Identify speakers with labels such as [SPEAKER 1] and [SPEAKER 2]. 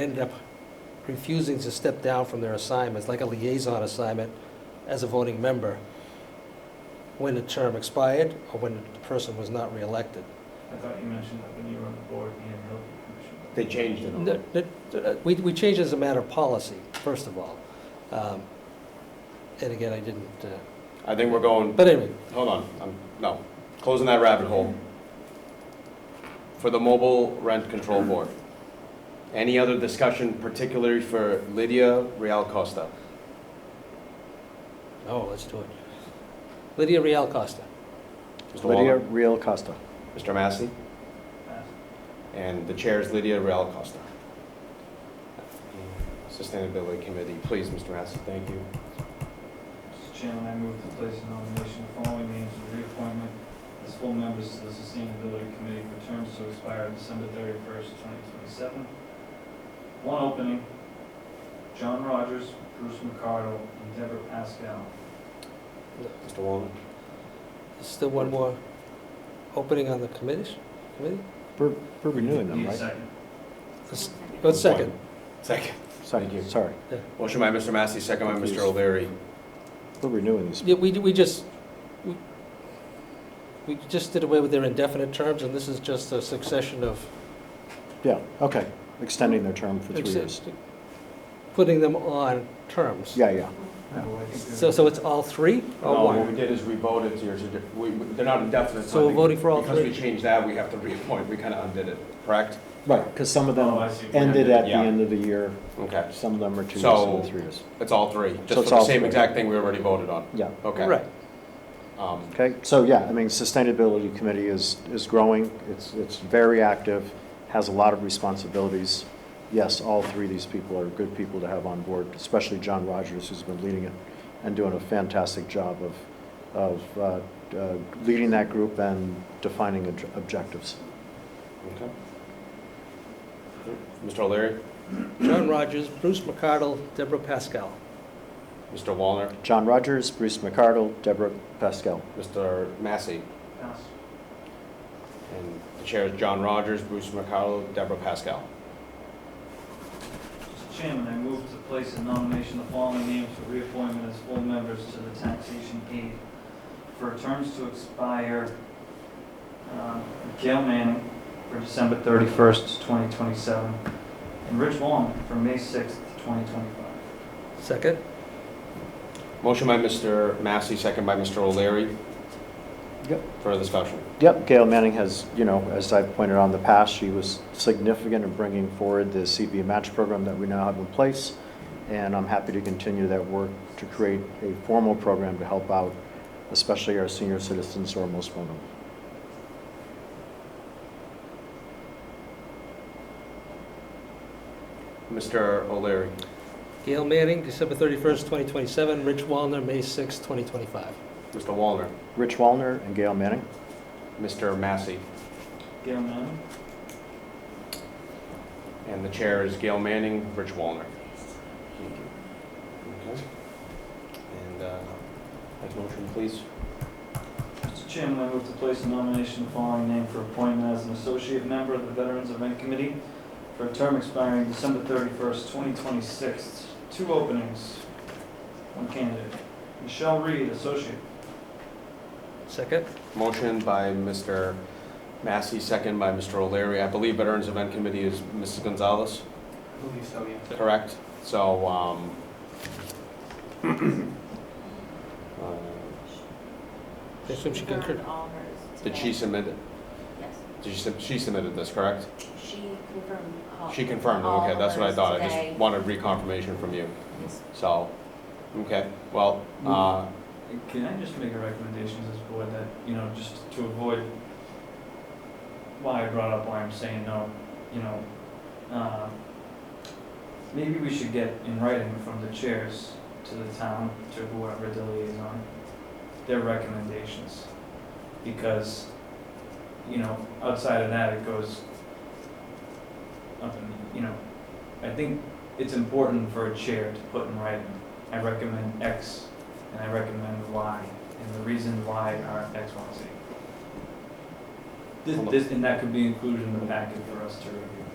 [SPEAKER 1] ended up refusing to step down from their assignments, like a liaison assignment as a voting member, when the term expired or when the person was not reelected.
[SPEAKER 2] I thought you mentioned that when you were on the board, you didn't know the
[SPEAKER 3] They changed it.
[SPEAKER 1] N- n- uh, We, we changed it as a matter of policy, first of all. Um, And again, I didn't, uh,
[SPEAKER 3] I think we're going,
[SPEAKER 1] but anyway,
[SPEAKER 3] hold on, I'm, no, closing that rabbit hole. For the mobile rent control board. Any other discussion particularly for Lydia Real Costa?
[SPEAKER 1] oh, let's do it. Lydia Real Costa.
[SPEAKER 3] Mr.
[SPEAKER 4] Lydia
[SPEAKER 3] Walner?
[SPEAKER 4] Real Costa.
[SPEAKER 3] Mr. Massey?
[SPEAKER 2] commission.
[SPEAKER 3] And the chair is Lydia Real Costa. Sustainability Committee, please, Mr. Massey, thank you.
[SPEAKER 2] Mr. Chairman, I move to place in nomination the following names for reappointment as full members of the Sustainability Committee for terms to expire December thirty-first, twenty twenty-seven. One opening, John Rogers, Bruce McCardle, and Deborah Pascal.
[SPEAKER 3] Mr. Walner?
[SPEAKER 1] Is Still one more opening on the committee? committee?
[SPEAKER 4] We're we're renewing them,
[SPEAKER 2] Need a
[SPEAKER 4] right?
[SPEAKER 2] second.
[SPEAKER 1] Let's- Go second.
[SPEAKER 3] Second. Thank you.
[SPEAKER 4] Second, sorry.
[SPEAKER 3] Motion by Mr. Massey, second by Mr.
[SPEAKER 4] Confused.
[SPEAKER 3] O'Leary.
[SPEAKER 4] We're renewing these.
[SPEAKER 1] Yeah, we, we just, we- we just did away with their indefinite terms, and this is just a succession of.
[SPEAKER 4] Yeah, okay. Extending their term for three years.
[SPEAKER 1] Putting them on terms.
[SPEAKER 4] Yeah, yeah.
[SPEAKER 2] Well, Oh, I think
[SPEAKER 1] So, so it's all three
[SPEAKER 3] No,
[SPEAKER 1] or
[SPEAKER 3] what we
[SPEAKER 1] one?
[SPEAKER 3] did is we voted to, yours. we, we- they're not indefinite.
[SPEAKER 1] So we're voting for all
[SPEAKER 3] Because we
[SPEAKER 1] three?
[SPEAKER 3] changed that, we have to reappoint, we kind of undid it, correct?
[SPEAKER 4] Right, because some of
[SPEAKER 2] Oh, I
[SPEAKER 4] them
[SPEAKER 2] see.
[SPEAKER 4] ended at the
[SPEAKER 3] Yeah.
[SPEAKER 4] end of the year.
[SPEAKER 3] Okay,
[SPEAKER 4] Some of them are two years,
[SPEAKER 3] So-
[SPEAKER 4] some are three years.
[SPEAKER 3] it's all three,
[SPEAKER 4] it's
[SPEAKER 3] just for the
[SPEAKER 4] all
[SPEAKER 3] same
[SPEAKER 4] three.
[SPEAKER 3] exact thing we already voted on,
[SPEAKER 4] Yeah,
[SPEAKER 3] okay?
[SPEAKER 1] Right.
[SPEAKER 3] Um,
[SPEAKER 4] okay. So, yeah, I mean, Sustainability Committee is, is growing. It's, it's very active, has a lot of responsibilities. Yes, all three of these people are good people to have on board, especially John Rogers, who's been leading it and doing a fantastic job of, of uh, uh, leading that group and defining obj- objectives.
[SPEAKER 3] okay. Mr. O'Leary,
[SPEAKER 1] John Rogers, Bruce McCardle, Deborah Pascal.
[SPEAKER 3] Mr. Wallner,
[SPEAKER 4] John Rogers, Bruce McCardle, Deborah Pascal.
[SPEAKER 3] Mr. Massey,
[SPEAKER 2] Pass.
[SPEAKER 3] and the chair is John Rogers, Bruce McCarroll, Deborah Pascal.
[SPEAKER 2] Mr. Chairman, I move to place in nomination the following names for reappointment as full members to the Taxation Aid for terms to expire, um, Gail Manning for December 31st, 2027, and Rich Wong for May 6th, 2025.
[SPEAKER 1] Second?
[SPEAKER 3] Motion by Mr. Massey, second by Mr. O'Leary.
[SPEAKER 4] Yep.
[SPEAKER 3] Further discussion?
[SPEAKER 4] Yep, Gail Manning has, you know, as I've pointed out in the past, she was significant in bringing forward the CV match program that we now have in place, and I'm happy to continue that work to create a formal program to help out, especially our senior citizens who are most vulnerable.
[SPEAKER 3] Mr. O'Leary,
[SPEAKER 1] Gail Manning, December 31st, 2027. Rich Wallner, May 6th, 2025.
[SPEAKER 3] Mr. Wallner,
[SPEAKER 4] Rich Wallner and Gail Manning.
[SPEAKER 3] Mr. Massey,
[SPEAKER 2] Gail Manning?
[SPEAKER 3] And the chair is Gail Manning, Rich Wallner. Okay. And, uh, next motion, please.
[SPEAKER 2] Mr. Chairman, I move to place a nomination of the following name for appointment as an associate member of the Veterans Event Committee for a term expiring December 31st, 2026. Two openings, one candidate. Michelle Reed, associate.
[SPEAKER 1] Second?
[SPEAKER 3] Motion by Mr. Massey, second by Mr. O'Leary. I believe Veterans Event Committee is Mrs. Gonzalez,
[SPEAKER 2] believe so, yeah.
[SPEAKER 3] correct? So, um, uh,
[SPEAKER 1] I assume she concurred.
[SPEAKER 5] Confirmed all hers
[SPEAKER 3] did she
[SPEAKER 5] today.
[SPEAKER 3] submit, it?
[SPEAKER 5] Yes,
[SPEAKER 3] did she, sub- she submitted this, correct?
[SPEAKER 5] she confirmed
[SPEAKER 2] Oh,
[SPEAKER 5] all.
[SPEAKER 3] She confirmed, it.
[SPEAKER 5] all
[SPEAKER 3] okay,
[SPEAKER 5] of
[SPEAKER 3] that's what I
[SPEAKER 5] hers
[SPEAKER 3] thought. I
[SPEAKER 5] today.
[SPEAKER 3] just wanted reconfirmation from you,
[SPEAKER 5] Yes.
[SPEAKER 3] so, okay, well, uh,
[SPEAKER 2] Can I just make a recommendation to this board that, you know, just to avoid why I brought up why I'm saying no, you know, uh, maybe we should get in writing from the chairs to the town, to whoever the liaison, their recommendations. Because, you know, outside of that, it goes up in, you know, I think it's important for a chair to put in writing, I recommend X, and I recommend Y, and the reason why are X, Y, Z. This, this, and that could be included in the packet for us to review.